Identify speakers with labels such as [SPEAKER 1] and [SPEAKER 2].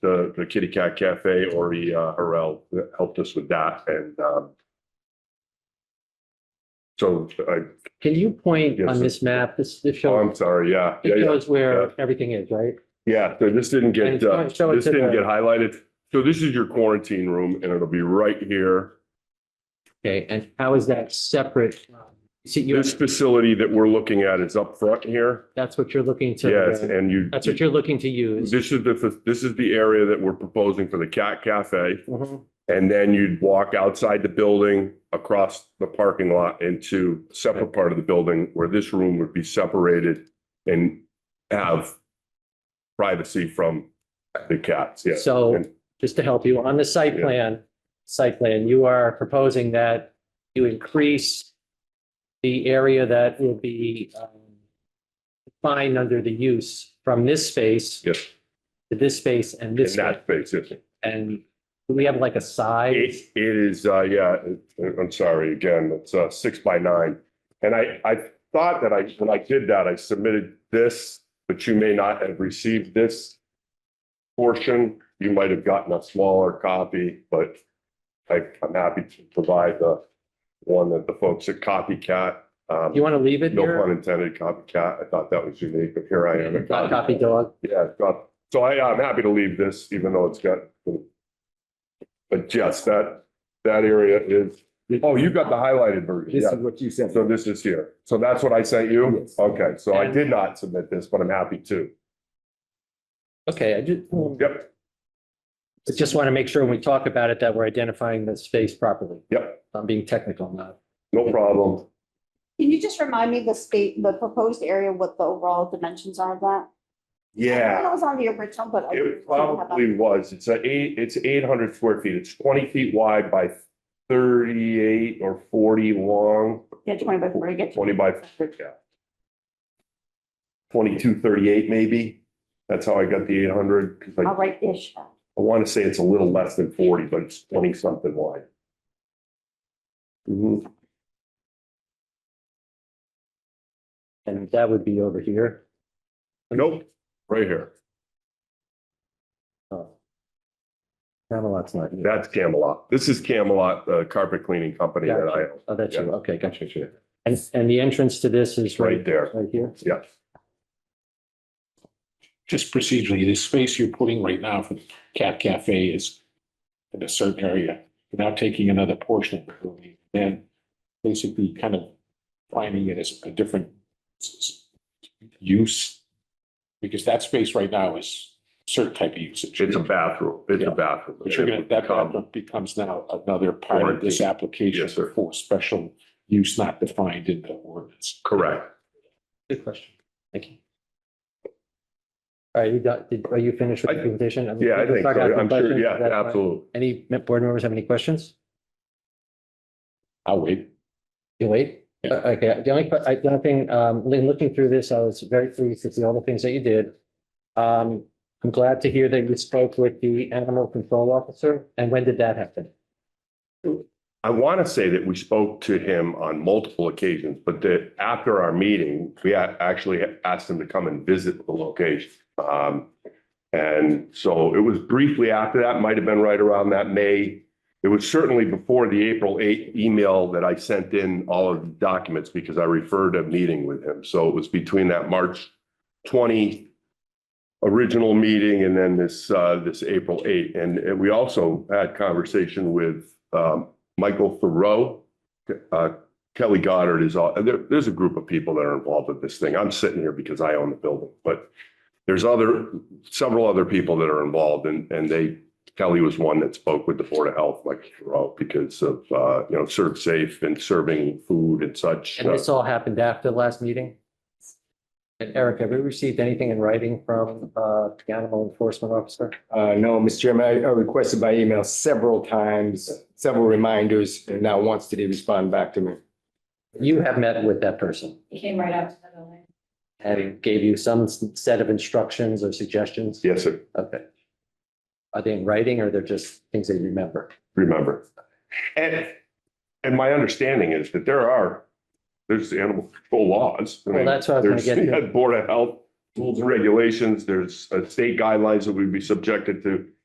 [SPEAKER 1] the, the Kitty Cat Cafe, Ori uh, Harrell helped us with that and, um, so I,
[SPEAKER 2] Can you point
[SPEAKER 1] Yes,
[SPEAKER 2] on
[SPEAKER 1] sir.
[SPEAKER 2] this map, this, this
[SPEAKER 1] oh,
[SPEAKER 2] shows,
[SPEAKER 1] I'm sorry, yeah, yeah,
[SPEAKER 2] it
[SPEAKER 1] yeah.
[SPEAKER 2] shows where everything is, right?
[SPEAKER 1] Yeah, so this didn't get,
[SPEAKER 2] And show-
[SPEAKER 1] uh,
[SPEAKER 2] show it
[SPEAKER 1] this
[SPEAKER 2] to
[SPEAKER 1] didn't
[SPEAKER 2] the-
[SPEAKER 1] get highlighted. So this is your quarantine room and it'll be right here.
[SPEAKER 2] Okay, and how is that separate? from- See, you,
[SPEAKER 1] This facility that we're looking at is up front here.
[SPEAKER 2] that's what you're looking
[SPEAKER 1] Yes,
[SPEAKER 2] to,
[SPEAKER 1] and you.
[SPEAKER 2] that's what you're looking to use.
[SPEAKER 1] This is the, this is the area that we're proposing for the Cat Cafe.
[SPEAKER 2] Mhm.
[SPEAKER 1] And then you'd walk outside the building, across the parking lot into separate part of the building where this room would be separated and have privacy from the cats, yes.
[SPEAKER 2] So,
[SPEAKER 1] And-
[SPEAKER 2] just to help you, on the site
[SPEAKER 1] Yeah.
[SPEAKER 2] plan, site plan, you are proposing that you increase the area that will be um, defined under the use from this space
[SPEAKER 1] Yes,
[SPEAKER 2] to this space and
[SPEAKER 1] in
[SPEAKER 2] this.
[SPEAKER 1] that
[SPEAKER 2] space.
[SPEAKER 1] space, yes.
[SPEAKER 2] And do we have like a size?
[SPEAKER 1] It, it is, uh, yeah, it- I'm sorry, again, it's, uh, six by nine. And I, I thought that I, when I did that, I submitted this, but you may not have received this portion. You might have gotten a smaller copy, but I, I'm happy to provide the one that the folks at Copycat, um,
[SPEAKER 2] You want to leave it
[SPEAKER 1] no
[SPEAKER 2] here?
[SPEAKER 1] pun intended, Copycat, I thought that was unique, but here I am. at
[SPEAKER 2] Got a
[SPEAKER 1] Copycat.
[SPEAKER 2] copy dog.
[SPEAKER 1] Yeah, it's got- so I, I'm happy to leave this, even though it's got. But yes, that, that area is, oh, you got the highlighted version,
[SPEAKER 3] This
[SPEAKER 1] yeah.
[SPEAKER 3] is what you sent.
[SPEAKER 1] So this is here. So that's what I sent you?
[SPEAKER 3] Yes.
[SPEAKER 1] Okay, so I did not submit this, but I'm happy to.
[SPEAKER 2] Okay, I just,
[SPEAKER 1] Yep,
[SPEAKER 2] I just want to make sure when we talk about it that we're identifying the space properly.
[SPEAKER 1] Yep.
[SPEAKER 2] I'm being technical now.
[SPEAKER 1] no problem.
[SPEAKER 4] Can you just remind me the state, the proposed area, what the overall dimensions are of that? I thought
[SPEAKER 1] Yeah,
[SPEAKER 4] It was on the original, but. I
[SPEAKER 1] it
[SPEAKER 4] didn't have that.
[SPEAKER 1] probably was. It's a eight, it's eight hundred square feet. It's twenty feet wide by thirty-eight or forty long,
[SPEAKER 4] Yeah, twenty by forty, get.
[SPEAKER 1] twenty by, yeah. Twenty-two thirty-eight maybe. That's how I got the eight hundred, because I
[SPEAKER 4] All right, ish.
[SPEAKER 1] I want to say it's a little less than forty, but it's twenty something wide. Mhm.
[SPEAKER 2] And that would be over here.
[SPEAKER 1] Nope, right here.
[SPEAKER 2] Oh. Camelot's not here.
[SPEAKER 1] That's Camelot. This is Camelot, the carpet cleaning company that I own.
[SPEAKER 2] Oh, that's you.
[SPEAKER 1] Yeah.
[SPEAKER 2] Okay, gotcha. And, and the entrance to this is
[SPEAKER 1] Right
[SPEAKER 2] right,
[SPEAKER 1] there,
[SPEAKER 2] right here?
[SPEAKER 1] yes.
[SPEAKER 5] just procedurally, the space you're putting right now for the Cat Cafe is in a certain area, without taking another portion of the building, then basically kind of finding it as a different s- s- use. Because that space right now is certain type of usage.
[SPEAKER 1] It's a bathroom, it's a bathroom. Um,
[SPEAKER 5] But you're gonna, that bathroom becomes now another part of this application
[SPEAKER 1] Yes, sir.
[SPEAKER 5] for special use not defined in the ordinance.
[SPEAKER 1] Correct.
[SPEAKER 2] Good question. Thank you. All right, you got, did- are you finished with the
[SPEAKER 1] I-
[SPEAKER 2] presentation? mean,
[SPEAKER 1] Yeah, I think,
[SPEAKER 2] start
[SPEAKER 1] so.
[SPEAKER 2] asking
[SPEAKER 1] I'm sure,
[SPEAKER 2] questions.
[SPEAKER 1] yeah,
[SPEAKER 2] Is that fine?
[SPEAKER 1] absolutely.
[SPEAKER 2] Any board members have any questions?
[SPEAKER 5] I'll wait.
[SPEAKER 2] You wait?
[SPEAKER 5] Yeah.
[SPEAKER 2] Uh, Okay, the only, que- I, the only thing, um, Lynn, looking through this, I was very pleased to see all the things that you did. Um, I'm glad to hear that you spoke with the animal control officer, and when did that happen?
[SPEAKER 1] I want to say that we spoke to him on multiple occasions, but that after our meeting, we a- actually asked him to come and visit the location. Um, and so it was briefly after that, might have been right around that May. It was certainly before the April eighth email that I sent in all of the documents because I referred a meeting with him. So it was between that March twenty original meeting and then this, uh, this April eighth. And uh, we also had conversation with, um, Michael Thoreau, uh, Kelly Goddard is all, there, there's a group of people that are involved with this thing. I'm sitting here because I own the building, but there's other, several other people that are involved and, and they, Kelly was one that spoke with the Board of Health, Michael Thoreau, because of, uh, you know, serve safe and serving food and such. Uh,
[SPEAKER 2] And this all happened after the last meeting? And Eric, have you received anything in writing from, uh, the animal enforcement officer?
[SPEAKER 3] Uh, no, Mr. Chairman, I I requested by email several times, several reminders, and not once did he respond back to me.
[SPEAKER 2] You have met with that person
[SPEAKER 6] He came right out to the building.
[SPEAKER 2] and gave you some s- set of instructions or suggestions?
[SPEAKER 1] Yes, sir,
[SPEAKER 2] Okay. Are they in writing or they're just things that you remember?
[SPEAKER 1] remember. And, and my understanding is that there are, there's animal control laws. I
[SPEAKER 2] Well,
[SPEAKER 1] mean,
[SPEAKER 2] that's what I was gonna
[SPEAKER 1] there's-
[SPEAKER 2] get to.
[SPEAKER 1] yeah, Board of Health rules and regulations, there's uh, state guidelines that we'd be subjected to.